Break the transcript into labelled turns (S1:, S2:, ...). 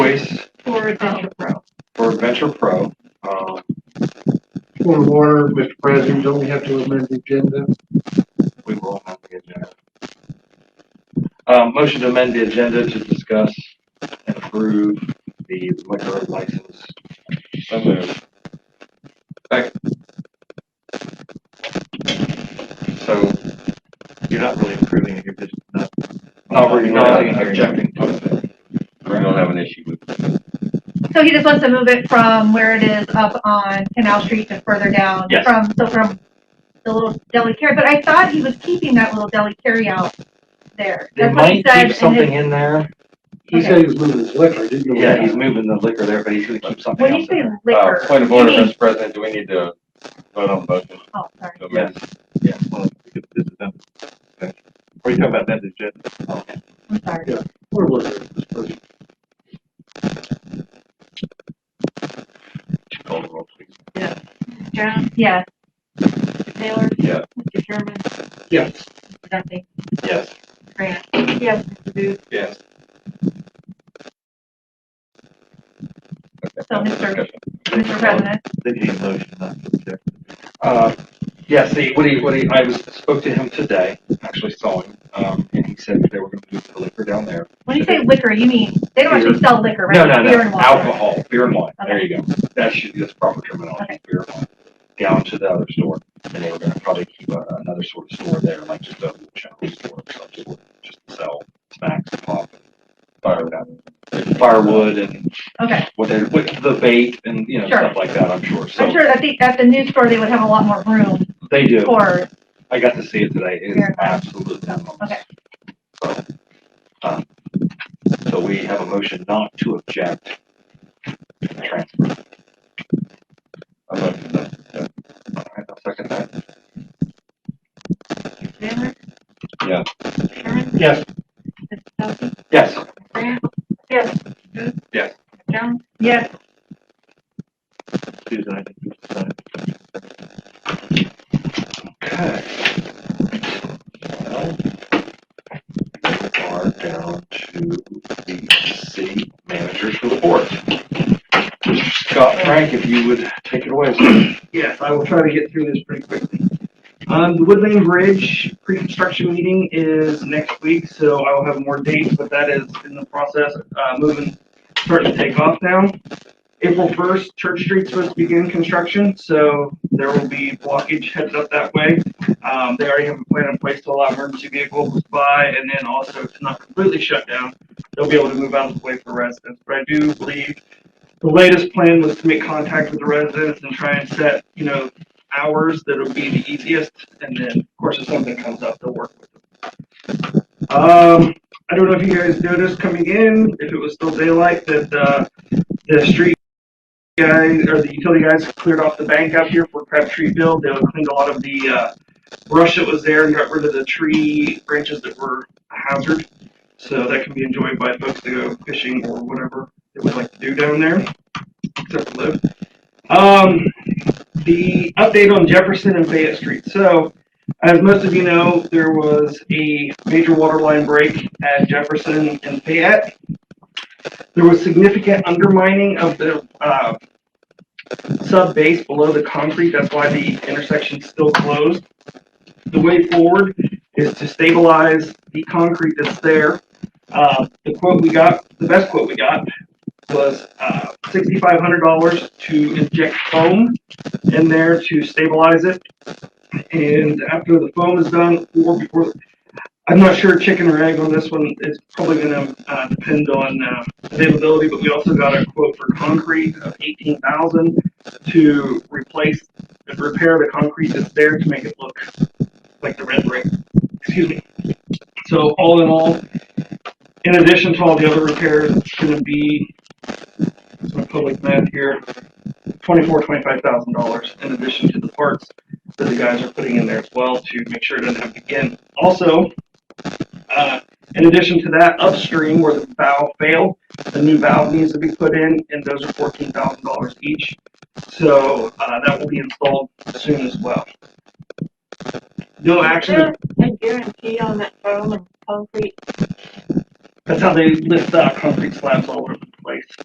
S1: Virginia Pro.
S2: for Adventure Pro. Um,
S3: Point of order, Mr. President, don't we have to amend the agenda?
S2: we will have the agenda. Um, motion to amend the agenda to discuss and approve the liquor license. So moved. Second. So you're not really approving it, you're just not. Not really, Oh, not objecting to it.
S4: We don't have an issue with it.
S1: So he just wants to move it from where it is up on Canal Street to further down.
S4: Yes.
S1: From, so from the little deli carry, but I thought he was keeping that little deli carry out there.
S2: There
S1: That's what he
S2: might
S1: said.
S2: keep
S1: in
S2: something
S1: his-
S2: in there.
S3: He said he was moving his liquor, didn't he?
S2: Yeah, he's moving the liquor there, but he's gonna keep something
S1: When you
S2: else in
S1: say
S2: there.
S1: liquor.
S4: Uh, Point of
S1: you
S4: order,
S1: mean-
S4: Mr. President, do we need to vote on both? of
S1: Oh, sorry.
S4: them?
S2: Yes.
S5: Yeah, well, because this is them. Or you talk about that, it's just,
S1: I'm sorry.
S3: Where was it, Mr. President?
S4: Call the roll, please.
S6: Jones,
S1: Yes.
S6: Taylor,
S4: Yeah.
S6: Mr. Sherman,
S3: Yes,
S6: Mr. Duffy,
S2: Yes.
S6: Grant,
S1: Yes.
S6: Mr. Booth,
S5: yes,
S4: Okay.
S1: So, Mr.
S4: Discussion.
S1: Mr. President,
S5: they need a motion not to object.
S2: Uh, yeah, see, what he, what he, I was, spoke to him today, actually saw him, um, and he said that they were gonna move the liquor down there.
S1: when you say liquor, you mean, they don't actually sell liquor, right?
S2: No, no,
S1: Beer
S2: no,
S1: and water.
S2: alcohol, beer and wine, there
S1: Okay.
S2: you go. That should, that's proper terminology,
S1: Okay.
S2: beer and wine. Down to the other store, and they were gonna probably keep a- another sort of store there, like just a general store, or some sort, just to sell snacks, pop, fire, firewood and
S1: Okay.
S2: what they, what the bait and, you know,
S1: Sure.
S2: stuff like that, I'm sure, so.
S1: I'm sure that the, at the new store, they would have a lot more room
S2: They do.
S1: for,
S2: I got to see it today. It is
S1: Very nice.
S2: absolutely phenomenal.
S1: okay.
S2: Um, So we have a motion not to object. to the Transfer.
S4: I motion that-
S2: All right, I'll second that.
S6: Taylor.
S4: Yeah.
S6: Mr. Sherman,
S3: yes,
S6: Mr. Duffy,
S2: Yes,
S6: Grant.
S1: Yes.
S6: Booth.
S2: Yes.
S6: Jones,
S1: Yes.
S5: Susan, I think you signed.
S2: okay. Well, We are down to the city manager's report. Scott Frank, if you would take it away. sir.
S7: Yes, I will try to get through this pretty quickly. Um, the Woodland Bridge pre-construction meeting is next week, so I will have more dates, but that is in the process, uh, moving, starting to take off now. April first, Church Street's supposed to begin construction, so there will be blockage headed up that way. Um, they already have a plan in place to allow emergency vehicles by, and then also it's not completely shut down. They'll be able to move out of the way for residents, but I do believe the latest plan was to make contact with the residents and try and set, you know, hours that'll be the easiest, and then, of course, if something comes up, they'll work with them. Um, I don't know if you guys noticed coming in, if it was still daylight, that, uh, the street guys, or the utility guys cleared off the bank out here for Crabtreeville, they cleaned a lot of the, uh, brush that was there and got rid of the tree branches that were a hazard, so that can be enjoyed by folks that go fishing or whatever they would like to do down there, except for live. Um, the update on Jefferson and Fayette Street. So, as most of you know, there was a major water line break at Jefferson and Fayette. There was significant undermining of the uh, sub base below the concrete. That's why the intersection's still closed. The way forward is to stabilize the concrete that's there. Uh, the quote we got, the best quote we got, was uh, $6,500 to inject foam in there to stabilize it. And after the foam is done, or before, I'm not sure chicken or egg on this one. It's probably going to uh, depend on uh, availability, but we also got a quote for concrete of 18,000 to replace and repair the concrete that's there to make it look like the red brick. Excuse me. So all in all, in addition to all the other repairs, it's going to be some public math here, twenty-four, twenty-five thousand dollars in addition to the parts that the guys are putting in there as well to make sure it doesn't happen again. Also, uh, in addition to that, upstream where the valve failed, the new valve needs to be put in, and those are fourteen thousand dollars each. So, uh, that will be installed soon as well. No action,
S6: a guarantee on that foam and concrete
S7: that's how they lift, uh, concrete slabs all over the place.